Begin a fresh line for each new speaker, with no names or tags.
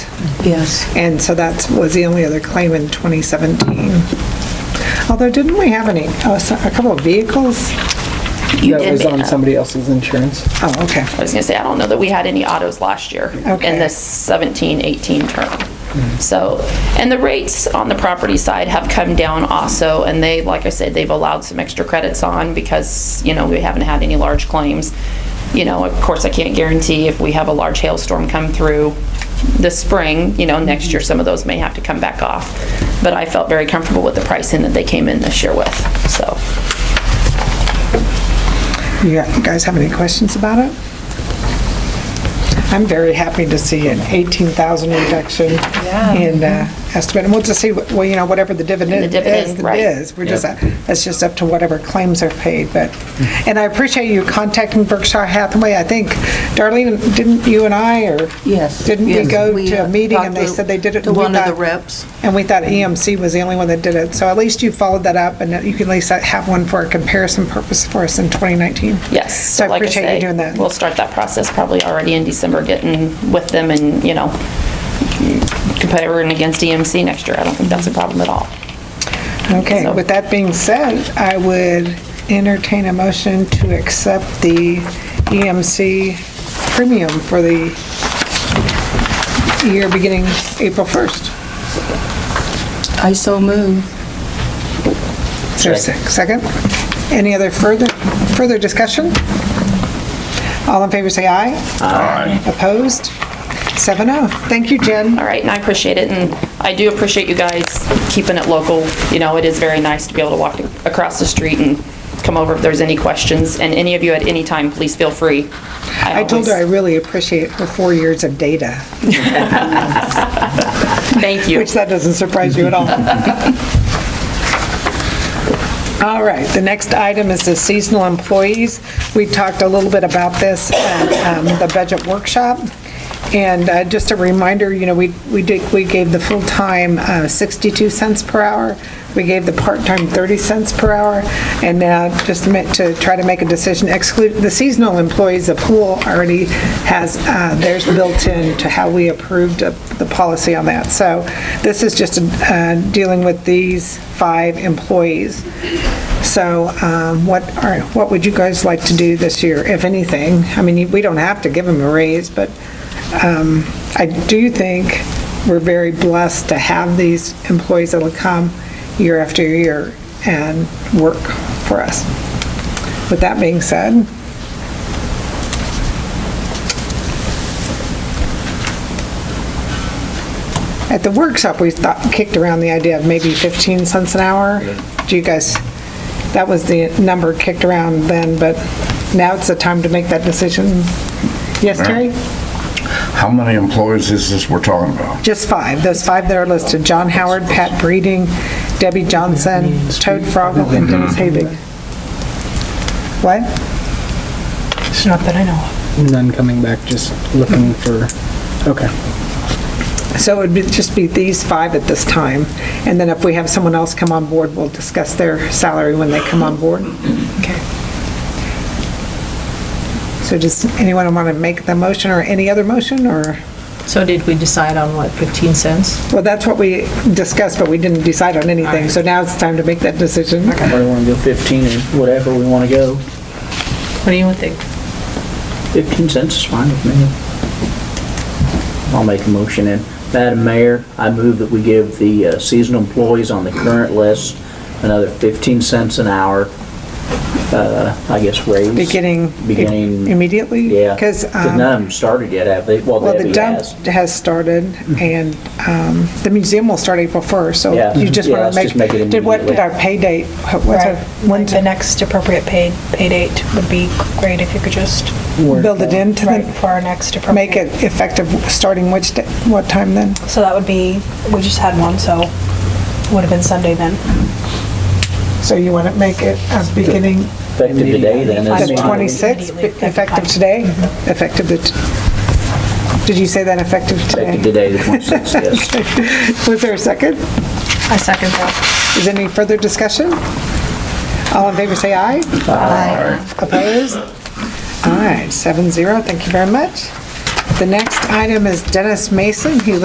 Yes.
And so that was the only other claim in 2017. Although, didn't we have any, oh, so- a couple of vehicles?
You
That
did
was
make
on
up.
somebody else's insurance.
Oh, okay.
I was gonna say, I don't know that we had any autos last year
Okay.
in this 17, 18 term. So, and the rates on the property side have come down also, and they, like I said, they've allowed some extra credits on because, you know, we haven't had any large claims. You know, of course, I can't guarantee if we have a large hailstorm come through this spring, you know, next year, some of those may have to come back off. But I felt very comfortable with the pricing that they came in this year with, so.
You got- you guys have any questions about it? I'm very happy to see an 18,000 reduction in uh, estimate. And we'll just see, what- well, you know, whatever the dividend
The
is.
dividend,
that
right.
is. We're just, that's just up to whatever claims are paid, but, and I appreciate you contacting Berkshire Hathaway. I think, Darlene, didn't you and I, or?
Yes.
Didn't we
yes.
go to a
uh,
meeting and
talked
they
to-
said they did it?
To
and we
one of the
thought-
reps.
And we thought EMC was the only one that did it. So at least you followed that up and you can at least have one for a comparison purpose for us in 2019.
Yes.
So I
like
appreciate
say,
you doing that.
We'll start that process probably already in December, getting with them and, you know, comparing against EMC next year. I don't think that's a problem at all.
Okay,
So-
with that being said, I would entertain a motion to accept the EMC premium for the year beginning April 1st.
I so move.
Is there a sec- second? Any other further, further discussion? All in favor, say aye. Aye. Opposed? 7-0. Thank you, Jen.
All right, and I appreciate it, and I do appreciate you guys keeping it local. You know, it is very nice to be able to walk across the street and come over if there's any questions. And any of you at any time, please feel free.
I told her I
always-
really appreciate her four years of data,
Thank you.
which that doesn't surprise you at all. All right, the next item is the seasonal employees. We talked a little bit about this at um, the budget workshop. And uh, just a reminder, you know, we we did, we gave the full-time uh, 62 cents per hour, we gave the part-time 30 cents per hour, and now just meant to try to make a decision, exclude, the seasonal employees, the pool already has uh, theirs built in to how we approved of the policy on that. So this is just uh, dealing with these five employees. So um, what are, what would you guys like to do this year, if anything? I mean, we don't have to give them a raise, but um, I do think we're very blessed to have these employees that'll come year after year and work for us. With that being said, At the workshop, we thought, kicked around the idea of maybe 15 cents an hour. Do you guys, that was the number kicked around then, but now it's the time to make that decision. Yes, Terry?
How many employees is this we're talking about?
Just five, those five that are listed, John Howard, Pat Breeding, Debbie Johnson, Toad Frogel, and Dennis Habig. What?
It's not that I know of.
None coming back, just looking for, okay.
So it would be- just be these five at this time, and then if we have someone else come on board, we'll discuss their salary when they come on board. Okay. So does anyone want to make the motion or any other motion, or,
So did we decide on what, 15 cents?
well, that's what we discussed, but we didn't decide on anything, so now it's time to make that decision.
Or we want to go 15 or whatever we want to go.
What do you think?
15 cents is fine with me.
I'll make a motion in. Madam Mayor, I move that we give the uh, seasonal employees on the current list another 15 cents an hour, uh, I guess raise.
Beginning
Beginning.
immediately? um,
Yeah.
Because,
none of them started yet, have they? Well,
well, the
Debbie
dump
has. Mm-hmm.
has started, and um, the museum will start April 1st,
Yeah.
so you just
Yeah,
want
let's
to
just make
make,
it
did what, did
immediately.
our pay date, what- what's our,
Right, like
when's
the next appropriate paid, pay date would be great if you could just,
build it into
right,
the,
for our next appropriate.
make it effective starting which, da- what time then?
So that would be, we just had one, so would have been Sunday then.
So you want to make it uh, beginning
Effective today then
Five
the
is
Immediately.
fine.
26th,
Immediately,
effective today?
Mm-hmm.
Effective the, t- did you say that effective
Effective
today?
today, the 26th, yes.
Was there a second?
I second that.
Is there any further discussion? All in favor, say aye. Aye. Opposed? All right, seven zero, thank you very much. The next item is Dennis Mason, he